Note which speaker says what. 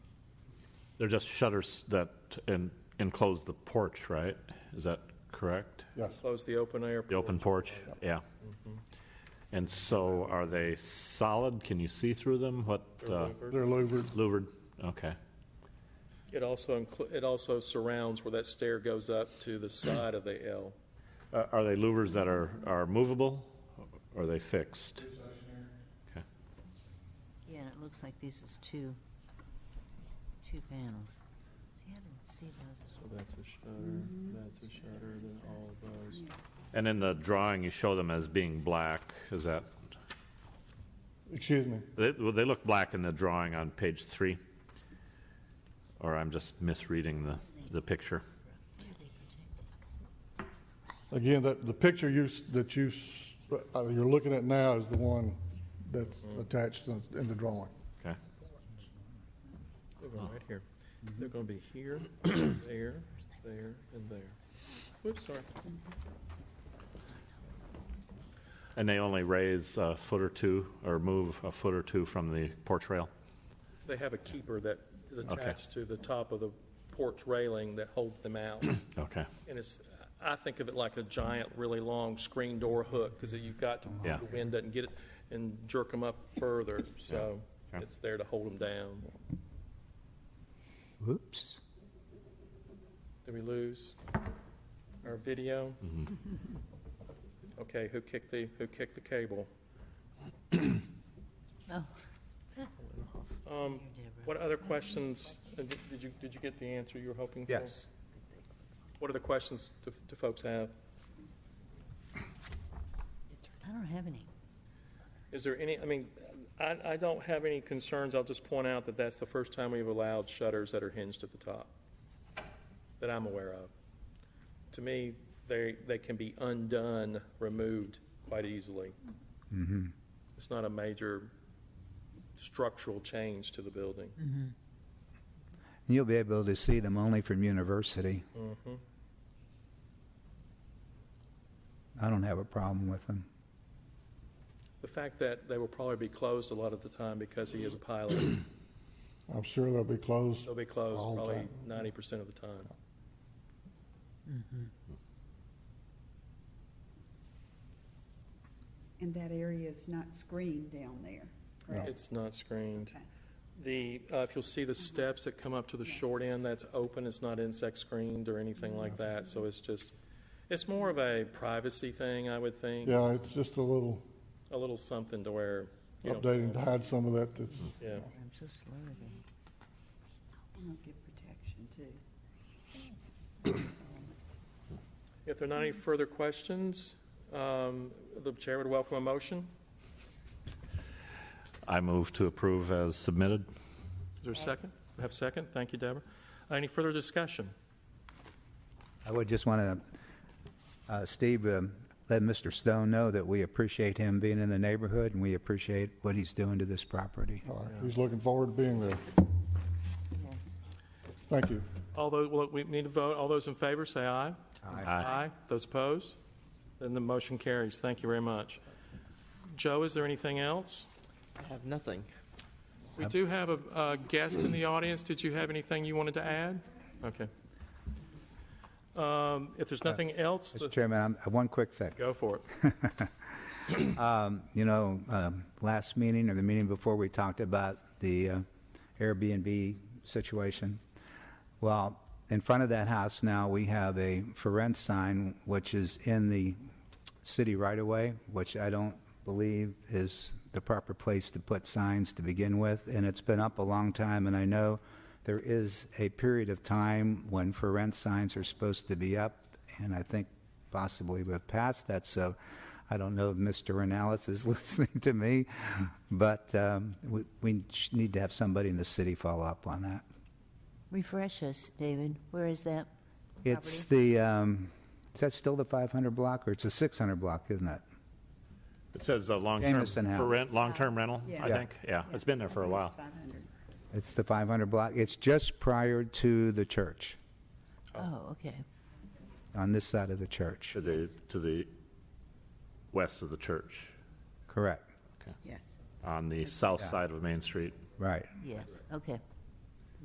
Speaker 1: They're just shutters that en- enclose the porch, right? Is that correct?
Speaker 2: Yes,
Speaker 3: Close the open air.
Speaker 1: The open porch? Yeah. And so are they solid? Can you see through them? What, uh,
Speaker 2: they're louvered.
Speaker 1: louvered? Okay.
Speaker 3: It also, inclu- it also surrounds where that stair goes up to the side of the L.
Speaker 1: Are Uh, are they louvers that are, are movable? Or are they fixed? Okay.
Speaker 4: Yeah, and it looks like this is two, two panels. See, I didn't see those.
Speaker 5: So that's a shutter, that's a shutter, then all of those.
Speaker 1: And in the drawing, you show them as being black. Is that,
Speaker 2: Excuse me.
Speaker 1: they, well, they look black in the drawing on page three? Or I'm just misreading the, the picture?
Speaker 4: Where are they projected?
Speaker 2: Again, that, the picture you, s- that you, s- uh, you're looking at now is the one that's attached in in the drawing.
Speaker 1: Okay.
Speaker 3: They're going
Speaker 1: Oh.
Speaker 3: right here.
Speaker 1: Mm-hmm.
Speaker 3: They're going to be here, there, there, and there. Whoops, sorry.
Speaker 1: And they only raise a foot or two, or move a foot or two from the porch rail?
Speaker 3: They have a keeper that is
Speaker 1: Okay.
Speaker 3: attached to the top of the porch railing that holds them out.
Speaker 1: Okay,
Speaker 3: And it's, I think of it like a giant, really long screen door hook, because you've got, to-
Speaker 1: Yeah.
Speaker 3: the wind doesn't get it and jerk them up further, so
Speaker 1: Yeah.
Speaker 3: it's there to hold them down.
Speaker 4: Whoops.
Speaker 3: Did we lose our video?
Speaker 1: Mm-hmm.
Speaker 3: Okay, who kicked the, who kicked the cable?
Speaker 4: Oh.
Speaker 3: Um, What other questions, uh, did did you, did you get the answer you were hoping for?
Speaker 6: Yes.
Speaker 3: What are the questions do do folks have?
Speaker 4: I don't have any.
Speaker 3: Is there any, I mean, I, I don't have any concerns, I'll just point out that that's the first time we've allowed shutters that are hinged at the top, that I'm aware of. To me, they, they can be undone, removed quite easily.
Speaker 2: Mm-hmm.
Speaker 3: It's not a major structural change to the building.
Speaker 6: You'll be able to see them only from university. I don't have a problem with them.
Speaker 3: The fact that they will probably be closed a lot of the time because he is a pilot,
Speaker 2: I'm sure they'll be closed.
Speaker 3: they'll be closed
Speaker 2: All the
Speaker 3: probably
Speaker 2: time.
Speaker 3: ninety percent of the time.
Speaker 7: And that area is not screened down there, correct?
Speaker 3: It's not screened.
Speaker 7: Okay.
Speaker 3: The, uh, if you'll see the steps that come up to the short end, that's open, it's not insect screened or anything like that, so it's just, it's more of a privacy thing, I would think.
Speaker 2: Yeah, it's just a little
Speaker 3: A little something to where, you know,
Speaker 2: updating to hide some of that that's,
Speaker 3: yeah.
Speaker 4: I'm so slow today.
Speaker 7: And it'll give protection too.
Speaker 3: If there are not any further questions, um, the chair would welcome a motion.
Speaker 1: I move to approve as submitted.
Speaker 3: Is there a second? We have a second, thank you, Deborah. Uh, Any further discussion?
Speaker 6: I would just want to, Steve, um, let Mr. Stone know that we appreciate him being in the neighborhood, and we appreciate what he's doing to this property.
Speaker 2: all right, he's looking forward to being there.
Speaker 4: Yes.
Speaker 2: Thank you.
Speaker 3: Although, well, we need to vote, all those in favor, say aye.
Speaker 6: Aye.
Speaker 3: Aye. Those opposed? Then the motion carries. Thank you very much. Joe, is there anything else?
Speaker 5: I have nothing.
Speaker 3: We do have a a guest in the audience. Did you have anything you wanted to add? Okay. Um, If there's nothing else,
Speaker 6: Mr.
Speaker 3: the-
Speaker 6: Chairman, I'm- uh, one quick thing.
Speaker 3: go for it.
Speaker 6: You know, um, last meeting or the meeting before, we talked about the uh, Airbnb situation. Well, in front of that house now, we have a for rent sign, which is in the city right of way, which I don't believe is the proper place to put signs to begin with. And it's been up a long time, and I know there is a period of time when for rent signs are supposed to be up, and I think possibly we've passed that. So I don't know if Mr. Renalis is listening to me, but um, we, we sh- need to have somebody in the city follow up on that.
Speaker 4: Refresh us, David. Where is that?
Speaker 6: It's the, um, is that still the 500 block, or it's a 600 block, isn't it?
Speaker 1: It says uh, long-term,
Speaker 6: Jamison House.
Speaker 1: for rent, long-term rental,
Speaker 7: Yeah.
Speaker 1: I
Speaker 6: Yeah.
Speaker 1: think. Yeah, it's been there for a while.
Speaker 7: Five hundred.
Speaker 6: It's the 500 block, it's just prior to the church,
Speaker 4: Oh, okay.
Speaker 6: on this side of the church,
Speaker 1: To the, to the west of the church,
Speaker 6: correct,
Speaker 7: Yes.
Speaker 1: on the south side of Main Street.
Speaker 6: right.
Speaker 4: Yes, okay.